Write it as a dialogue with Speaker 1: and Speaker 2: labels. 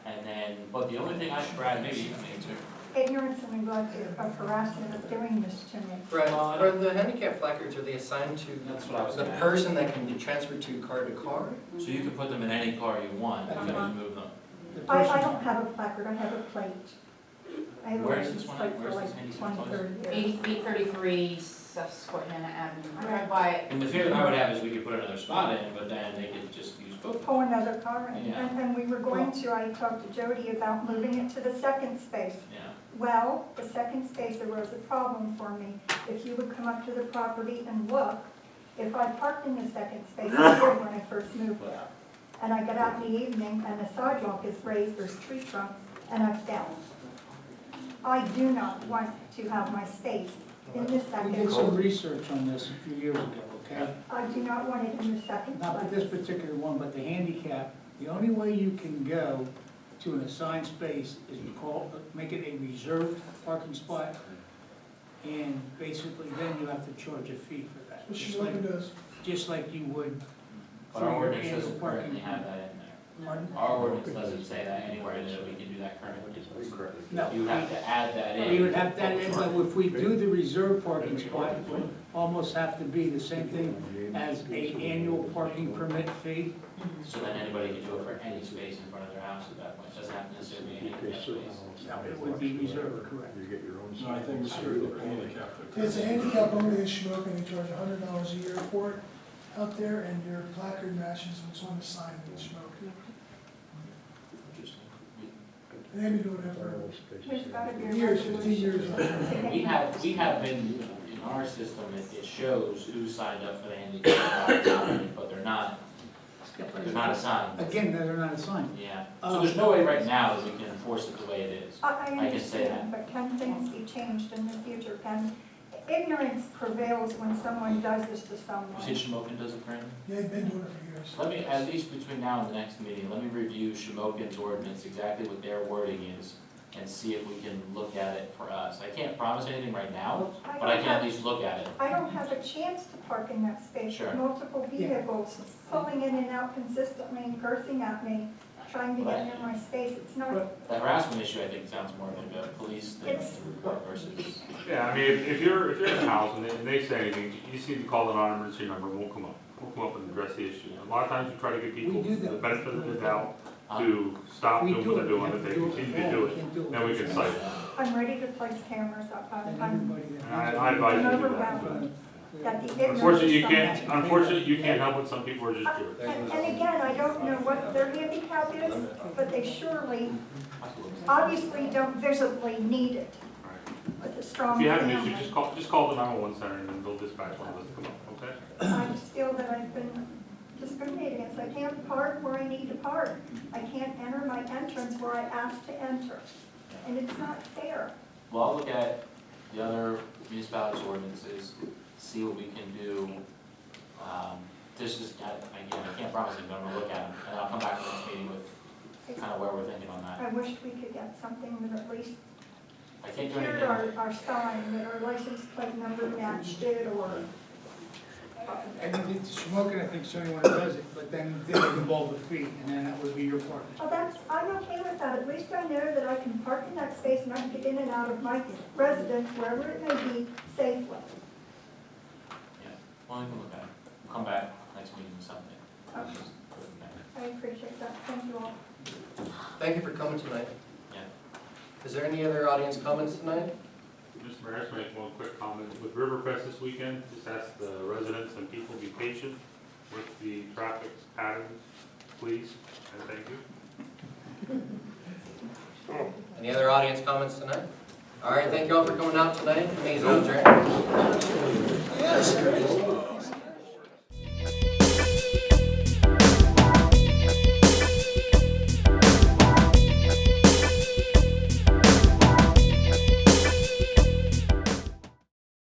Speaker 1: But the only thing I should, Brad, maybe you can answer,
Speaker 2: Ignorance and neglect of harassment of doing this to me.
Speaker 1: Well, I
Speaker 3: Right, or the handicap placards, are they assigned to
Speaker 1: Uh, That's what I was
Speaker 3: the
Speaker 1: gonna ask.
Speaker 3: person that can be transferred to car to car?
Speaker 1: so you can put them in any car you want, you can just move them.
Speaker 4: The
Speaker 2: I, I
Speaker 4: person-
Speaker 2: don't have a placard, I have a plate. I have a
Speaker 1: Where's
Speaker 2: license
Speaker 1: this one?
Speaker 2: plate for
Speaker 1: Where's this
Speaker 2: like
Speaker 1: handicap
Speaker 2: twenty,
Speaker 1: place?
Speaker 2: thirty years.
Speaker 5: Eight, eight thirty-three, Susquehanna Avenue, I
Speaker 2: Right.
Speaker 5: drive by it
Speaker 1: And the fear that I would have is we could put another spot in, but then they could just use both.
Speaker 2: Pull another car in,
Speaker 1: Yeah.
Speaker 2: and, and we were going to, I talked to Jody about moving it to the second space.
Speaker 1: Yeah,
Speaker 2: Well, the second space, there was a problem for me. If you would come up to the property and look, if I parked in the second space, I did when I first moved there, and I got out in the evening and the sidewalk is raised, there's tree trunks, and I fell. I do not want to have my space in the
Speaker 4: We
Speaker 2: second.
Speaker 4: did some research on this a few years ago, okay?
Speaker 2: I do not want it in the second
Speaker 4: Not with this
Speaker 2: place.
Speaker 4: particular one, but the handicap, the only way you can go to an assigned space is to call, make it a reserved parking spot. And basically then you have to charge a fee for that.
Speaker 6: Which is
Speaker 4: just
Speaker 6: what
Speaker 4: like-
Speaker 6: it does.
Speaker 4: Just like you would,
Speaker 1: but our
Speaker 4: So your
Speaker 1: ordinance
Speaker 4: annual
Speaker 1: doesn't
Speaker 4: parking-
Speaker 1: currently have that in there.
Speaker 4: pardon?
Speaker 1: Our ordinance doesn't say that anywhere that we can do that currently.
Speaker 4: No.
Speaker 1: You have to add that in.
Speaker 4: We would have that, in, but if we do the reserved parking spot, it would almost have to be the same thing as a annual parking permit fee.
Speaker 1: So then anybody could do it for any space in front of their house at that point, doesn't have to necessarily be an handicap space.
Speaker 4: No, it would be reserved, correct.
Speaker 7: You get your own.
Speaker 6: No, I think it's
Speaker 7: screw
Speaker 6: really handicapped.
Speaker 7: It's
Speaker 6: It's a handicap only issue, up and they charge a hundred dollars a year for it out there, and your placard matches what's on the sign that you smoke. And they've been doing that for
Speaker 2: There's gotta be a
Speaker 6: years, fifteen
Speaker 2: resolution.
Speaker 6: years.
Speaker 2: to
Speaker 1: We
Speaker 2: get-
Speaker 1: have, we have been, in our system, it, it shows who signed up for the handicap spot, but they're not, they're not assigned.
Speaker 4: Again, they're not assigned.
Speaker 1: Yeah, so there's no way right now that we can enforce it the way it is.
Speaker 2: I,
Speaker 1: I
Speaker 2: I
Speaker 1: can say
Speaker 2: understand, but can things be changed in the future? Can, ignorance prevails when someone does this to
Speaker 1: You said
Speaker 2: someone.
Speaker 1: Shamokin does it, Brandon?
Speaker 6: They've been doing it for years.
Speaker 1: Let me, at least between now and the next meeting, let me review Shamokin's ordinance, exactly what their wording is, and see if we can look at it for us. I can't promise anything right now, but I
Speaker 2: don't
Speaker 1: can
Speaker 2: have-
Speaker 1: at least look at it.
Speaker 2: I don't have a chance to park in that space.
Speaker 1: Sure.
Speaker 2: Multiple vehicles pulling in and out consistently and cursing at me, trying to get in my space. It's not,
Speaker 1: The harassment issue, I think, sounds more like a police than
Speaker 2: It's-
Speaker 1: a report versus.
Speaker 8: Yeah, I mean, if, if you're, if you're in a house and they, and they say anything, you just need to call the non-emergency number, and we'll come up, we'll come up and address the issue. A lot of times we try to get people
Speaker 4: We do
Speaker 8: the
Speaker 4: that.
Speaker 8: benefit of the doubt to stop
Speaker 4: We
Speaker 8: doing what
Speaker 4: do it,
Speaker 8: they're
Speaker 4: we
Speaker 8: doing,
Speaker 4: have
Speaker 8: if
Speaker 4: to
Speaker 8: they
Speaker 4: do it.
Speaker 8: continue
Speaker 4: all,
Speaker 8: to do
Speaker 4: we
Speaker 8: it,
Speaker 4: can't do it.
Speaker 8: then we can cite them.
Speaker 2: I'm ready to place cameras up. I'm-
Speaker 4: And
Speaker 2: I'm,
Speaker 4: everybody that-
Speaker 8: I- I advise
Speaker 2: you to do that. that the ignorance.
Speaker 8: Unfortunately, you
Speaker 2: of
Speaker 8: can't,
Speaker 2: someone-
Speaker 8: unfortunately, you can't help it, some people are just
Speaker 2: Uh,
Speaker 8: jerks.
Speaker 2: And and again, I don't know what their handicap is, but they surely, obviously don't visibly need it with a strong
Speaker 8: If you have an issue, just
Speaker 2: family.
Speaker 8: call, just call the nine-one-one center and then they'll dispatch one of us to come up, okay?
Speaker 2: I just feel that I've been discriminated against. I can't park where I need to park. I can't enter my entrance where I asked to enter. And it's not fair.
Speaker 1: Well, I'll look at the other municipalities' ordinances, see what we can do. Um, This is, I- again, I can't promise it, but I'm gonna look at them, and I'll come back to this meeting with kind of where we're thinking on that.
Speaker 2: I wish we could get something that at least
Speaker 1: I can't do
Speaker 2: secured
Speaker 1: anything,
Speaker 2: our, our sign, that our license plate number matched it, or,
Speaker 4: I think it's smoking, I think Sony one does it, but then they would involve the fee, and then that would be your part.
Speaker 2: oh, that's, I'm okay with that. At least I know that I can park in that space and I can get in and out of my residence, wherever it may be, safely.
Speaker 1: well, I can look at it, We'll come back next meeting with something. We'll just put it in there.
Speaker 2: I appreciate that. Thank you all.
Speaker 3: Thank you for coming tonight.
Speaker 1: Yeah.
Speaker 3: Is there any other audience comments tonight?
Speaker 8: Mr. Mayor, I just make one quick comment. With Riverfest this weekend, just ask the residents and people to be patient with the traffic patterns, please, and thank you.
Speaker 3: Any other audience comments tonight? All right, thank you all for coming out tonight. Meeting's adjourned.
Speaker 6: Yes,